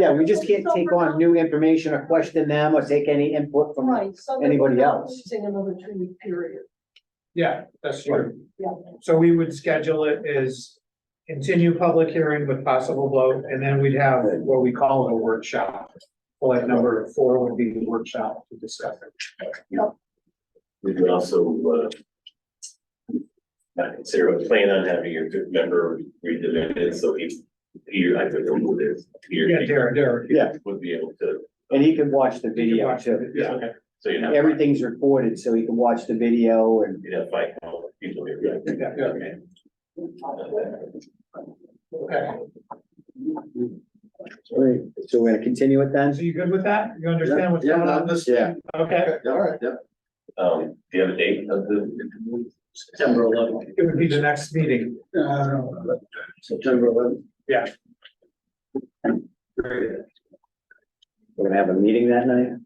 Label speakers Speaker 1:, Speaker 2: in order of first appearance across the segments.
Speaker 1: Yeah, we just can't take on new information or question them or take any input from,
Speaker 2: Right, so. they're
Speaker 1: anybody
Speaker 2: not
Speaker 1: else.
Speaker 2: Losing another two week period,
Speaker 3: Yeah, that's true.
Speaker 2: yeah.
Speaker 3: So we would schedule it as continue public hearing with possible vote, and then we'd have what we call a workshop. Bullet number four would be the workshop to discuss it.
Speaker 4: We could also, uh, not consider a plan on having your good member read the minutes, so if Peter, I could remove this.
Speaker 3: Yeah, Derek, Derek.
Speaker 1: yeah,
Speaker 4: Would be able to,
Speaker 1: and he can watch the
Speaker 3: you
Speaker 1: video
Speaker 3: watch
Speaker 1: too.
Speaker 3: Yeah, okay.
Speaker 4: so you know.
Speaker 1: Everything's recorded, so he can watch the video and
Speaker 4: You know, fight, all the people here. right?
Speaker 3: Yeah, yeah, okay. Okay,
Speaker 1: Great, so we're gonna continue it then?
Speaker 3: so you good with that? You understand what's
Speaker 5: Yeah,
Speaker 3: going
Speaker 5: yeah,
Speaker 3: on?
Speaker 5: this-
Speaker 1: Yeah.
Speaker 3: Okay,
Speaker 5: All right, yeah.
Speaker 4: Um, do you have a date of the? September eleventh.
Speaker 3: it would be the next meeting.
Speaker 5: September eleventh.
Speaker 1: We're gonna have a meeting that night?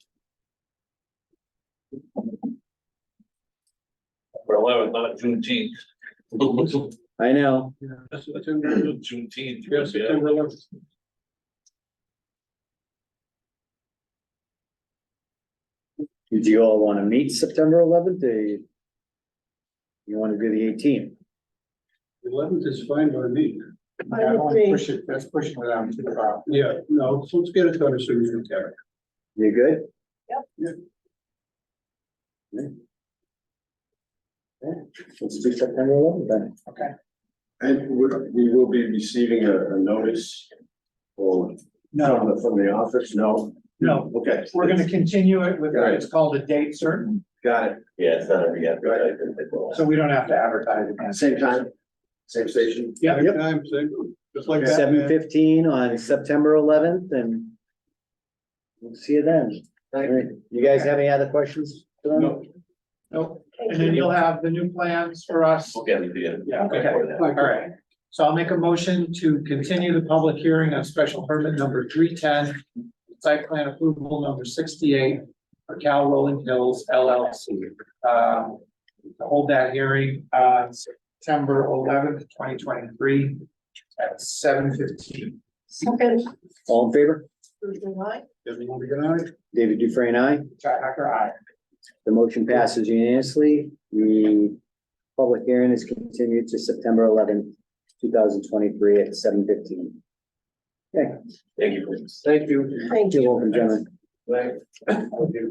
Speaker 4: For eleventh, not Juneteenth.
Speaker 1: I know,
Speaker 4: Juneteenth. Yes,
Speaker 1: do you all wanna meet September eleventh or you you wanna do the eighteenth?
Speaker 6: Eleventh is fine by me.
Speaker 2: I would agree.
Speaker 3: it, that's pushing it out to the top.
Speaker 6: Yeah, no, so let's get it done as soon as we can.
Speaker 1: You good?
Speaker 2: Yep.
Speaker 6: Yep.
Speaker 1: Yeah. Yeah, let's do September eleventh then.
Speaker 5: And we, we will be receiving a, a notice or from the, from the office, no?
Speaker 3: No.
Speaker 5: Okay.
Speaker 3: We're gonna continue it with,
Speaker 5: Right.
Speaker 3: it's called a date certain,
Speaker 5: Got it.
Speaker 4: Yeah, it's not a re
Speaker 3: so we don't have to advertise again.
Speaker 5: Same time, same station.
Speaker 3: Yeah,
Speaker 6: Same time, same, just like that.
Speaker 1: Seven
Speaker 6: man.
Speaker 1: fifteen on September eleventh and we'll see you then. All right. You guys have any other questions? for them?
Speaker 3: No. Nope, and then you'll have the new plans for us.
Speaker 4: Okay, we do.
Speaker 3: Yeah, okay.
Speaker 4: Before that.
Speaker 3: All right, so I'll make a motion to continue the public hearing on special permit number three ten, site plan approval number sixty-eight for Cal Rolling Hills LLC. Um, to hold that hearing on September eleventh, twenty twenty-three at seven fifteen.
Speaker 2: Second,
Speaker 1: All in favor?
Speaker 2: Thursday night,
Speaker 6: Everyone be good on it?
Speaker 1: David Dufresne, aye.
Speaker 3: Chad Hacker, aye.
Speaker 1: The motion passes unanimously. The public hearing is continued to September eleventh, two thousand twenty-three at seven fifteen.
Speaker 4: Thank you. Bruce.
Speaker 1: Thank you.
Speaker 2: thank
Speaker 1: You're
Speaker 2: you.
Speaker 1: welcome, gentlemen.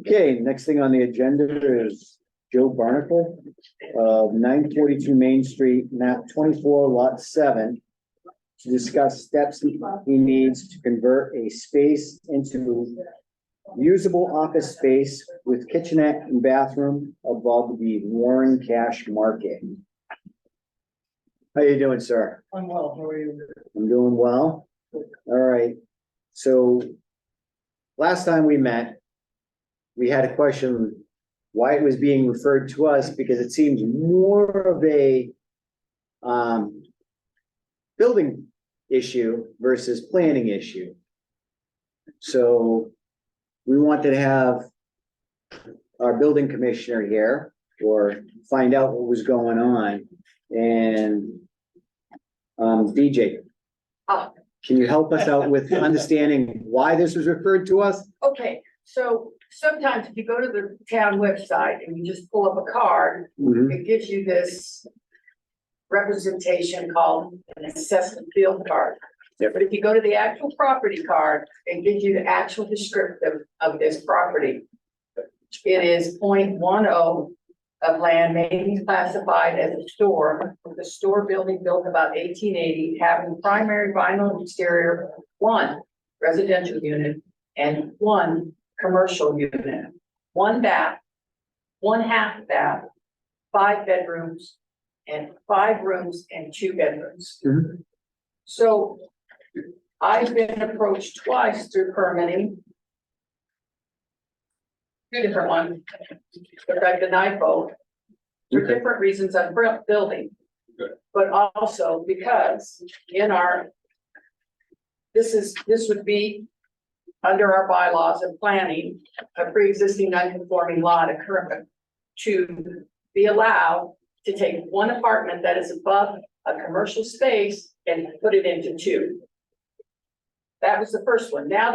Speaker 1: Okay, next thing on the agenda is Joe Barnacle of nine forty-two Main Street, map twenty-four, lot seven. To discuss steps he needs to convert a space into usable office space with kitchenette and bathroom above the Warren Cash Market. How you doing, sir?
Speaker 2: I'm well, how are you?
Speaker 1: I'm doing well. All right, so last time we met, we had a question why it was being referred to us because it seems more of a um building issue versus planning issue. So we wanted to have our building commissioner here or find out what was going on and um, DJ, can you help us out with understanding why this was referred to us?
Speaker 7: Okay, so sometimes if you go to the town website and you just pull up a card, it gives you this representation called an assessment field card.
Speaker 1: Yep.
Speaker 7: But if you go to the actual property card, it gives you the actual descriptive of this property. It is 0.10 of land may be classified as a store, with a store building built about eighteen eighty, having primary vinyl exterior, one residential unit, and one commercial unit. One bath, one half bath, five bedrooms, and five rooms and two bedrooms.
Speaker 1: Mhm.
Speaker 7: So I've been approached twice through permitting. Two different ones, but I denied both. For
Speaker 1: Okay.
Speaker 7: different reasons on bu- building.
Speaker 6: Good.
Speaker 7: But also because in our. This is, this would be under our bylaws and planning, a pre-existing non-conforming lot occurring to be allowed to take one apartment that is above a commercial space and put it into two. That was the first one. Now